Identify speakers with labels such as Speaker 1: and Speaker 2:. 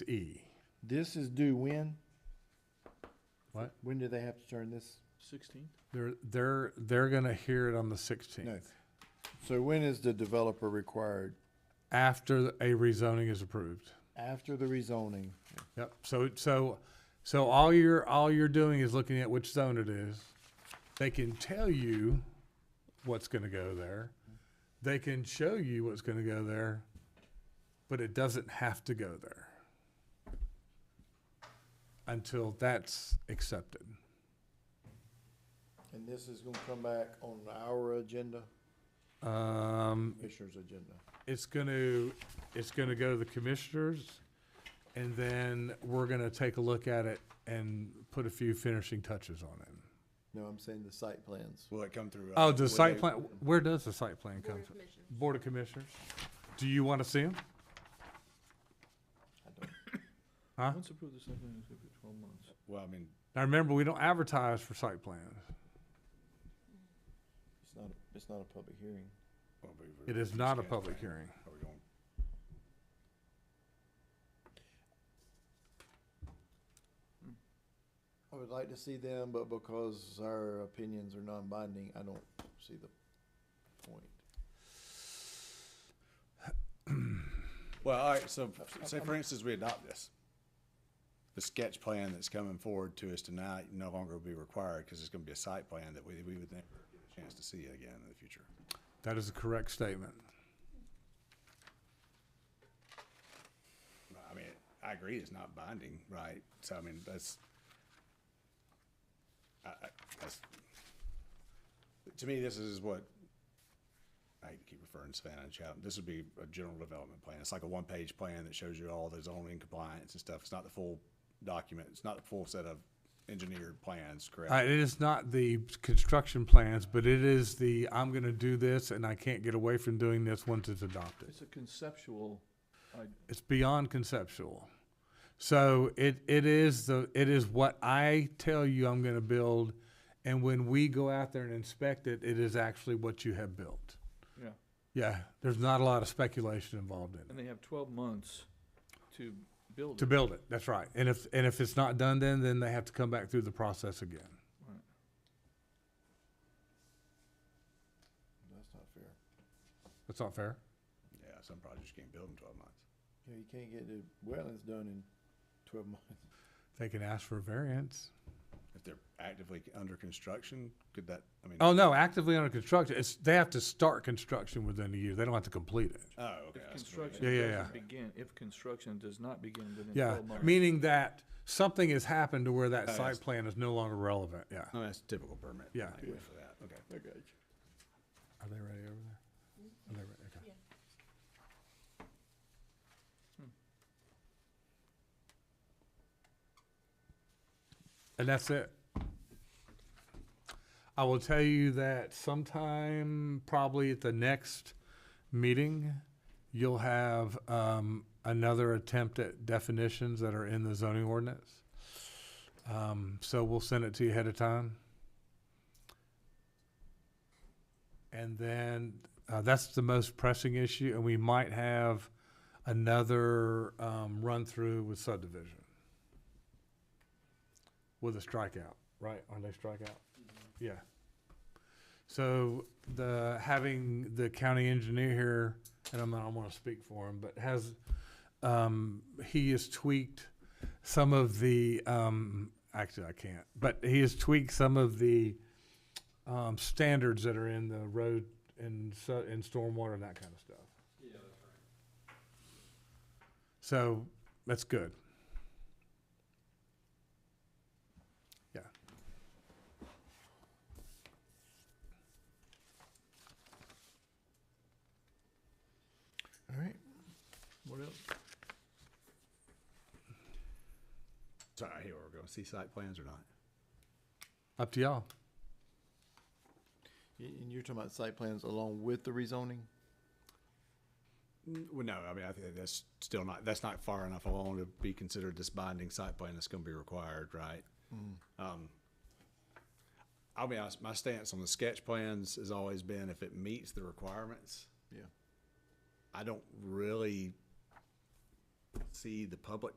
Speaker 1: to E.
Speaker 2: This is due when?
Speaker 1: What?
Speaker 2: When do they have to turn this?
Speaker 3: Sixteenth?
Speaker 1: They're, they're, they're gonna hear it on the
Speaker 2: No.
Speaker 1: sixteenth,
Speaker 2: So when is the developer required?
Speaker 1: after a rezoning is approved.
Speaker 2: After the rezoning?
Speaker 1: Yep, so, so, so all you're, all you're doing is looking at which zone it is. They can tell you what's gonna go there. They can show you what's gonna go there, but it doesn't have to go there. Until that's accepted.
Speaker 2: And this is gonna come back on our agenda,
Speaker 1: Um,
Speaker 2: commissioner's agenda.
Speaker 1: it's gonna, it's gonna go to the commissioners, and then we're gonna take a look at it and put a few finishing touches on it.
Speaker 2: No, I'm saying the site plans.
Speaker 4: Will it come through?
Speaker 1: Oh, the site plan, where does the site plan come
Speaker 5: Board of
Speaker 1: from?
Speaker 5: Commissioners.
Speaker 1: Board of Commissioners. Do you want to see them?
Speaker 2: I don't-
Speaker 1: Huh?
Speaker 3: Once approved, the site plan is good for twelve months.
Speaker 4: Well, I mean,
Speaker 1: Now, remember, we don't advertise for site plans.
Speaker 2: It's not, it's not a public hearing.
Speaker 4: well, we- we-
Speaker 1: It is
Speaker 4: we
Speaker 1: not a
Speaker 4: can't,
Speaker 1: public
Speaker 4: right?
Speaker 1: hearing.
Speaker 4: Are we going-
Speaker 2: I would like to see them, but because our opinions are non-binding, I don't see the point.
Speaker 4: Well, all right, so, say for instance, we adopt this. The sketch plan that's coming forward to us tonight no longer will be required because it's gonna be a site plan that we, we would never get a chance to see again in the future.
Speaker 1: That is a correct statement.
Speaker 4: I mean, I agree, it's not binding, right? So, I mean, that's, I, I, that's, to me, this is what, I keep referring to Savannah and Chatham, this would be a general development plan. It's like a one-page plan that shows you all the zoning compliance and stuff. It's not the full document, it's not the full set of engineered plans, correct?
Speaker 1: Uh, it is not the construction plans, but it is the, I'm going to do this and I can't get away from doing this once it's adopted.
Speaker 3: It's a conceptual, I,
Speaker 1: It's beyond conceptual. So it, it is the, it is what I tell you I'm going to build. And when we go out there and inspect it, it is actually what you have built.
Speaker 3: yeah,
Speaker 1: Yeah, there's not a lot of speculation involved in
Speaker 3: and
Speaker 1: it.
Speaker 3: they have twelve months to build it.
Speaker 1: To build it, that's right. And if, and if it's not done then, then they have to come back through the process again.
Speaker 3: Right.
Speaker 2: That's not fair.
Speaker 1: That's not fair.
Speaker 4: Yeah, some projects you can't build in twelve months.
Speaker 2: Yeah, you can't get the wetlands done in twelve months.
Speaker 1: They can ask for a variance.
Speaker 4: If they're actively under construction, could that, I mean,
Speaker 1: Oh, no, actively under construction, it's, they have to start construction within a year. They don't have to complete it.
Speaker 4: oh, okay.
Speaker 3: If
Speaker 4: that's what I mean.
Speaker 3: construction
Speaker 1: Yeah, yeah,
Speaker 3: doesn't begin, if construction does not begin within
Speaker 1: Yeah,
Speaker 3: twelve months.
Speaker 1: meaning that something has happened to where that
Speaker 4: Oh, yes.
Speaker 1: site plan is no longer relevant, yeah.
Speaker 4: Oh, that's typical permit.
Speaker 1: Yeah.
Speaker 4: language For that, okay.
Speaker 2: I got you.
Speaker 1: Are they ready over there? Are they ready? Okay. Hmm. And that's it. I will tell you that sometime, probably at the next meeting, you'll have um, another attempt at definitions that are in the zoning ordinance. Um, so we'll send it to you ahead of time. And then uh, that's the most pressing issue, and we might have another um, run through with subdivision with a strikeout, right? Aren't they strikeout? Yeah. So the having the county engineer here, and I'm not, I want to speak for him, but has um, he has tweaked some of the um, actually I can't, but he has tweaked some of the um, standards that are in the road and so, and stormwater and that kind of stuff. Yeah, that's right. So that's good. Yeah.
Speaker 2: All right.
Speaker 3: What else?
Speaker 4: Sorry, here we're going. See site plans or not?
Speaker 1: Up to y'all.
Speaker 2: Y- And you're talking about site plans along with the rezoning?
Speaker 4: Well, no, I mean, I think that's still not, that's not far enough along to be considered this binding site plan that's gonna be required, right? Um, I'll be honest, my stance on the sketch plans has always been if it meets the requirements,
Speaker 2: Yeah.
Speaker 4: I don't really see the public